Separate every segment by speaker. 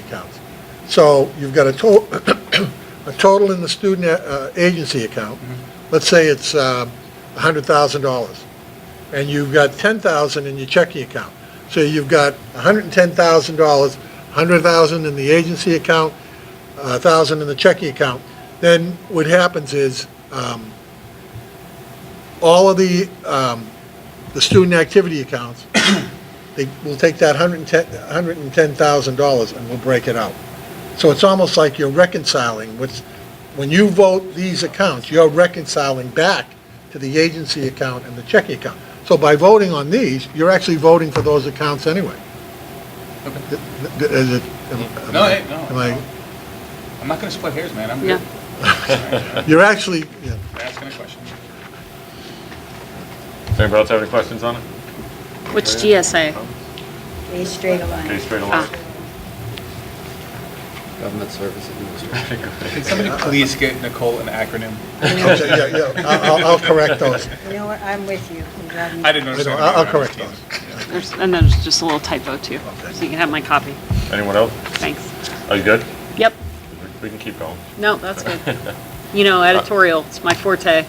Speaker 1: accounts. So you've got a to, a total in the student uh, agency account, let's say it's uh, $100,000, and you've got 10,000 in your checking account. So you've got $110,000, 100,000 in the agency account, 1,000 in the checking account. Then what happens is, um, all of the, um, the student activity accounts they, we'll take that hundred and ten, hundred and ten thousand dollars and we'll break it out. So it's almost like you're reconciling what's, when you vote these accounts, you're reconciling back to the agency account and the checking account. So by voting on these, you're actually voting for those accounts anyway. Th- th- Is it? am- am
Speaker 2: No,
Speaker 1: I-
Speaker 2: hey, no,
Speaker 1: am I-
Speaker 2: no. I'm not gonna split hairs, man, I'm
Speaker 3: Yeah.
Speaker 2: good.
Speaker 1: You're actually, yeah.
Speaker 2: Asking a question.
Speaker 4: Anybody else have any questions on it?
Speaker 3: Which GSA?
Speaker 5: A straight Ah. line.
Speaker 4: Okay, straight along.
Speaker 6: Government Service Administration.
Speaker 2: Can somebody please get Nicole an acronym?
Speaker 1: Okay, yeah, yeah, I'll, I'll- I'll correct those.
Speaker 5: You know what, I'm with you. I'm glad you-
Speaker 2: I didn't
Speaker 1: I know,
Speaker 2: understand.
Speaker 1: I'll I'll correct those.
Speaker 3: There's- And there's just a little typo too, so you can have my copy.
Speaker 4: Anyone else?
Speaker 3: Thanks.
Speaker 4: Are you good?
Speaker 3: Yep,
Speaker 4: We can keep going.
Speaker 3: no, that's good. You know, editorial, it's my forte.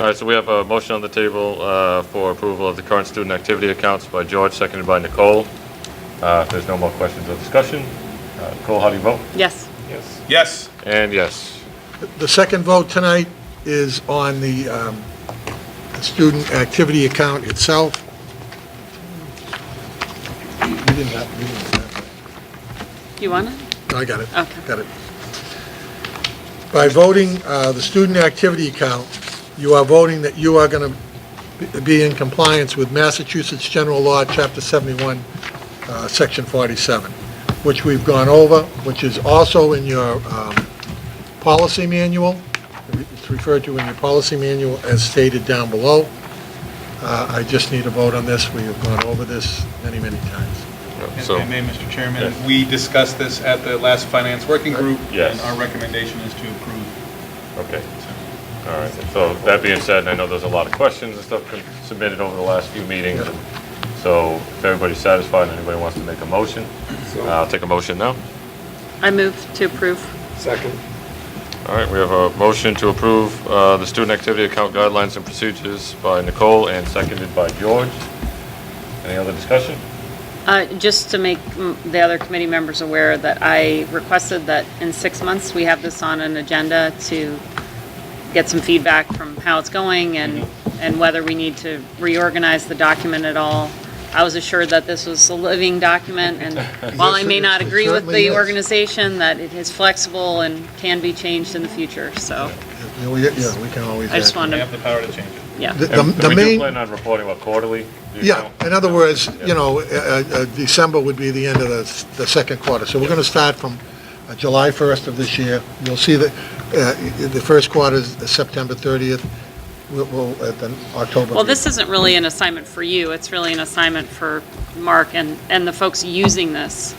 Speaker 4: All right, so we have a motion on the table uh, for approval of the current student activity accounts by George, seconded by Nicole. Uh, If there's no more questions or discussion, uh, Nicole, how do you vote?
Speaker 3: Yes,
Speaker 4: Yes.
Speaker 2: Yes,
Speaker 4: And yes.
Speaker 1: The second vote tonight is on the um, the student activity account itself. You didn't have, you didn't have
Speaker 3: you want it?
Speaker 1: that. I got it.
Speaker 3: Okay.
Speaker 1: Got it. By voting uh, the student activity account, you are voting that you are going to be in compliance with Massachusetts General Law, Chapter 71, uh, Section 47, which we've gone over, which is also in your um, policy manual. It's referred to in your policy manual as stated down below. Uh, I just need a vote on this. We have gone over this many, many times.
Speaker 2: if
Speaker 4: So,
Speaker 2: I may, Mr. Chairman,
Speaker 4: Yes.
Speaker 2: we discussed this at the last finance working group.
Speaker 4: Yes.
Speaker 2: And our recommendation is to approve.
Speaker 4: okay, all right. So that being said, and I know there's a lot of questions and stuff submitted over the last few meetings. So if everybody's satisfied and anybody wants to make a motion, uh, I'll take a motion now.
Speaker 3: I move to approve.
Speaker 6: Second.
Speaker 4: All right, we have a motion to approve uh, the student activity account guidelines and procedures by Nicole and seconded by George. Any other discussion?
Speaker 3: Uh, Just to make mm, the other committee members aware that I requested that in six months, we have this on an agenda to get some feedback from how it's going and, and whether we need to reorganize the document at all. I was assured that this was a living document, and while I may not agree with
Speaker 1: It certainly
Speaker 3: the
Speaker 1: is.
Speaker 3: organization, that it is flexible and can be changed in the future, so,
Speaker 1: You know, we- Yeah, we can always.
Speaker 3: I just
Speaker 1: act.
Speaker 3: wanted-
Speaker 2: We have the power to change it.
Speaker 3: yeah.
Speaker 1: The- The
Speaker 4: And
Speaker 1: the
Speaker 4: We
Speaker 1: main.
Speaker 4: do plan on reporting what quarterly? do you
Speaker 1: Yeah,
Speaker 4: know?
Speaker 1: in other words, you know, uh, uh, December would be the end of the, s- the second quarter. So we're going to start from uh, July 1st of this year. You'll see that uh, the first quarter is September 30th, we'll- we'll, uh, then October.
Speaker 3: Well, this isn't really an assignment for you, it's really an assignment for Mark and, and the folks using this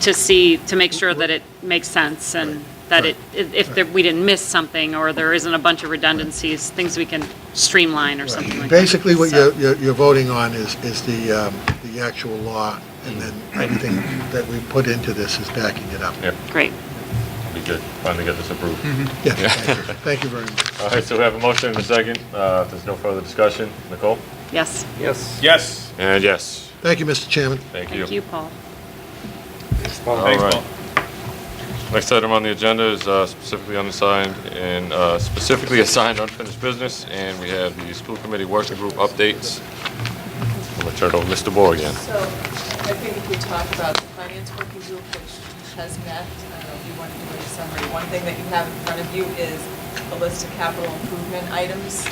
Speaker 3: to see, to make sure that it makes sense and that it, if if there- we didn't miss something or there isn't a bunch of redundancies, things we can streamline or something like that.
Speaker 1: Basically, what
Speaker 3: So-
Speaker 1: you're, you're you're voting on is, is the, um, the actual law, and then everything that we put into this is backing it up.
Speaker 4: Yeah,
Speaker 3: Great,
Speaker 4: we did finally get this approved.
Speaker 1: Yeah, thank you. Thank you very much.
Speaker 4: All right, so we have a motion and a second. Uh, If there's no further discussion, Nicole?
Speaker 3: yes.
Speaker 6: Yes.
Speaker 2: Yes,
Speaker 4: And yes,
Speaker 1: Thank you, Mr. Chairman.
Speaker 4: thank you.
Speaker 3: Thank you, Paul.
Speaker 6: Paul.
Speaker 4: All
Speaker 2: thanks,
Speaker 4: right.
Speaker 2: Paul.
Speaker 4: Next item on the agenda is uh, specifically unassigned and uh, specifically assigned unfinished business, and we have the school committee working group updates. I'm gonna turn it over to Mr. Bohr again.
Speaker 7: So I think if we talk about the finance working group, which has met, I don't know if you want to do a summary, one thing that you have in front of you is a list of capital improvement items.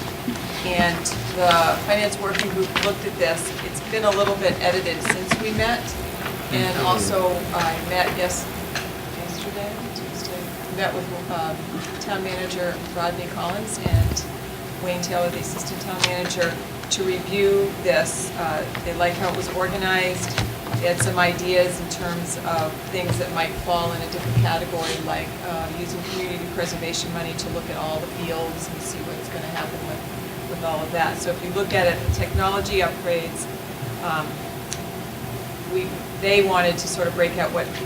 Speaker 7: And the finance working group looked at this. It's been a little bit edited since we met. And also, I met yes, yesterday, Tuesday, met with um, town manager Rodney Collins and Wayne Taylor, the assistant town manager, to review this. Uh, They like how it was organized. They had some ideas in terms of things that might fall in a different category, like uh, using community preservation money to look at all the fields and see what's going to happen with, with all of that. So if you look at it, technology upgrades, um, we, they wanted to sort of break out what